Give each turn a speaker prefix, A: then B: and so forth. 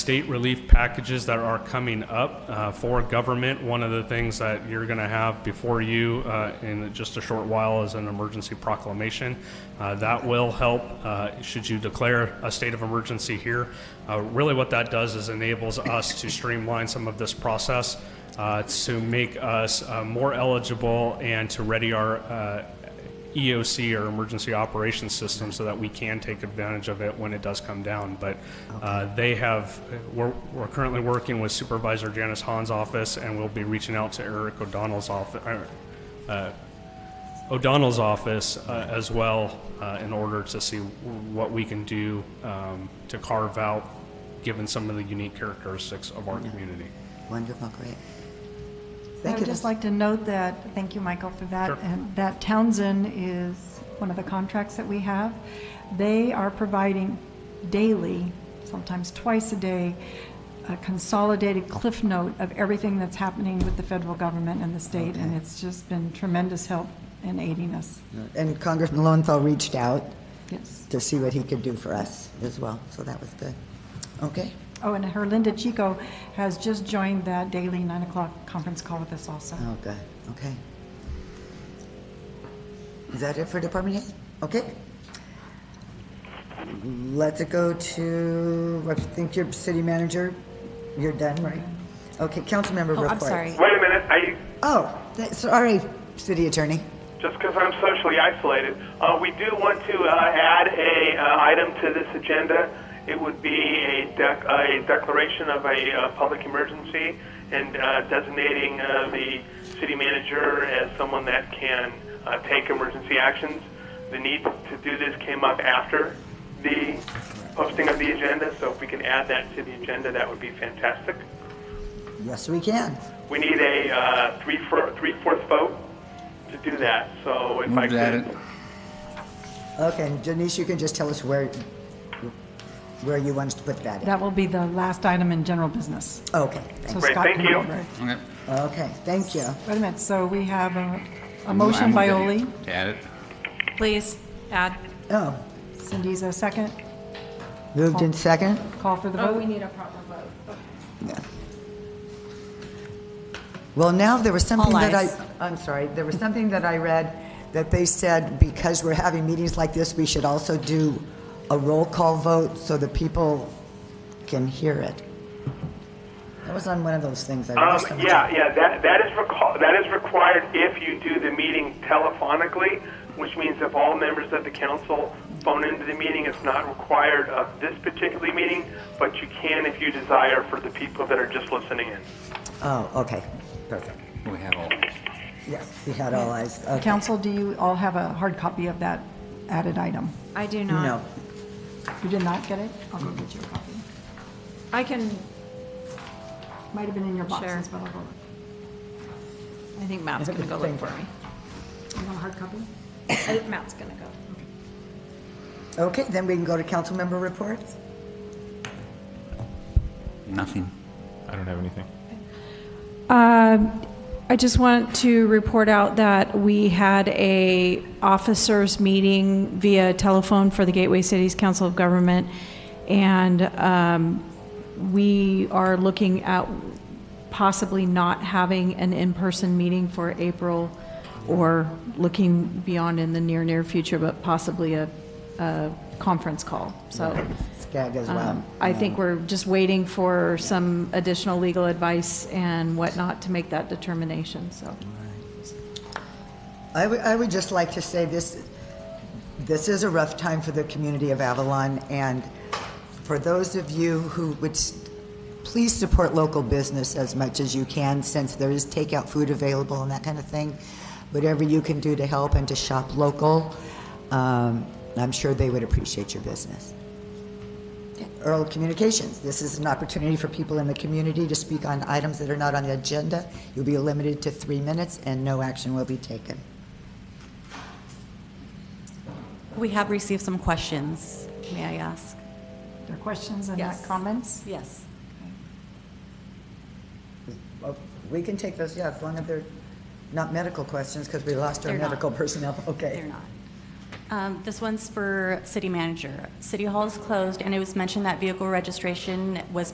A: state relief packages that are coming up uh, for government. One of the things that you're going to have before you uh, in just a short while is an emergency proclamation. Uh, That will help uh, should you declare a state of emergency here. Uh, Really what that does is enables us to streamline some of this process uh, to make us uh, more eligible and to ready our uh, EOC or emergency operations system so that we can take advantage of it when it does come down. But uh, they have, we're, we're currently working with Supervisor Janice Hahn's office and we'll be reaching out to Eric O'Donnell's office, O'Donnell's office uh, as well uh, in order to see what we can do um, to carve out, given some of the unique characteristics of our community.
B: Wonderful, great.
C: I
B: Thank you.
C: would just
B: Ms.
C: like to note that, thank you, Michael, for that,
A: Sure.
C: and that Townsend is one of the contracts that we have. They are providing daily, sometimes twice a day, a consolidated cliff note of everything that's happening with the federal government and the state, and
B: Okay.
C: it's just been tremendous help in aiding us.
B: And Congressman Lowenthal reached out
C: Yes.
B: to see what he could do for us as well, so that was good. Okay,
C: Oh, and Herlinda Chico has just joined that daily nine o'clock conference call with us also.
B: oh, good, okay. Is that it for department heads? Okay. Let's go to, I think your city manager, you're done, right? Okay, council member
D: Oh,
B: reports.
D: I'm sorry.
E: Wait a minute. I,
B: Oh, th- sorry, city attorney.
E: just because I'm socially isolated, uh, we do want to uh, add a uh, item to this agenda. It would be a, dec- a declaration of a uh, public emergency and uh, designating uh, the city manager as someone that can uh, take emergency actions. The need to do this came up after the posting of the agenda, so if we can add that to the agenda, that would be fantastic.
B: Yes, we can.
E: We need a uh, three four- three-fourths vote to do that, so if I
F: Move that
E: could.
F: in-
B: Okay, and Denise, you can just tell us where, where you want us to put that in.
C: That will be the last item in general business.
B: Okay,
C: So
B: thank-
E: Great,
C: Scott
E: thank
C: can
E: you.
C: go over it.
F: okay.
B: okay, thank you.
C: Wait a minute, so we have a, a
F: I
C: motion
F: move
C: by
F: that
C: Ole.
F: you Add it.
D: Please, add.
B: Oh,
C: Cindy's a second.
B: moved in second?
C: Call for the vote.
D: Oh, need a proper vote.
B: Yeah. Well, now, there was something
D: All
B: that I,
D: eyes.
B: I'm sorry, there was something that I read that they said because we're having meetings like this, we should also do a roll call vote so the people can hear it. That was on one of those things I read.
E: Um,
B: somewhere.
E: yeah, yeah, that, that is recall, that is required if you do the meeting telephonically, which means if all members of the council phone into the meeting, it's not required of this particular meeting, but you can if you desire for the people that are just listening in.
B: Oh, okay, perfect.
F: We have all.
B: Yes, we had all eyes, okay.
C: Council, do you all have a hard copy of that added item?
D: I do not.
B: No,
C: You did not get it? I'll go get you a copy.
D: I can,
C: Might have been in your boxes,
D: Sure.
C: but I'll go.
D: I think Matt's gonna go look for me.
C: You want a hard copy?
D: I think Matt's gonna go.
B: okay, then we can go to council member reports?
F: Nothing.
G: I don't have anything.
D: Um, I just want to report out that we had a officers meeting via telephone for the Gateway Cities Council of Government, and um, we are looking at possibly not having an in-person meeting for April, or looking beyond in the near, near future, but possibly a, a conference call, so.
B: Skag as well.
D: Um, I think we're just waiting for some additional legal advice and whatnot to make that determination, so.
B: I would, I would just like to say this, this is a rough time for the community of Avalon, and for those of you who would, s- please support local business as much as you can, since there is takeout food available and that kind of thing. Whatever you can do to help and to shop local, um, I'm sure they would appreciate your business. Earl Communications, this is an opportunity for people in the community to speak on items that are not on the agenda. You'll be limited to three minutes, and no action will be taken.
H: We have received some questions, may I ask?
C: There are questions and not
H: Yes.
C: comments?
H: Yes.
B: Well, We can take those, yeah, as long as they're not medical questions, because we lost our
H: They're not.
B: medical personnel, okay.
H: They're not. Um, This one's for city manager. City Hall is closed, and it was mentioned that vehicle registration was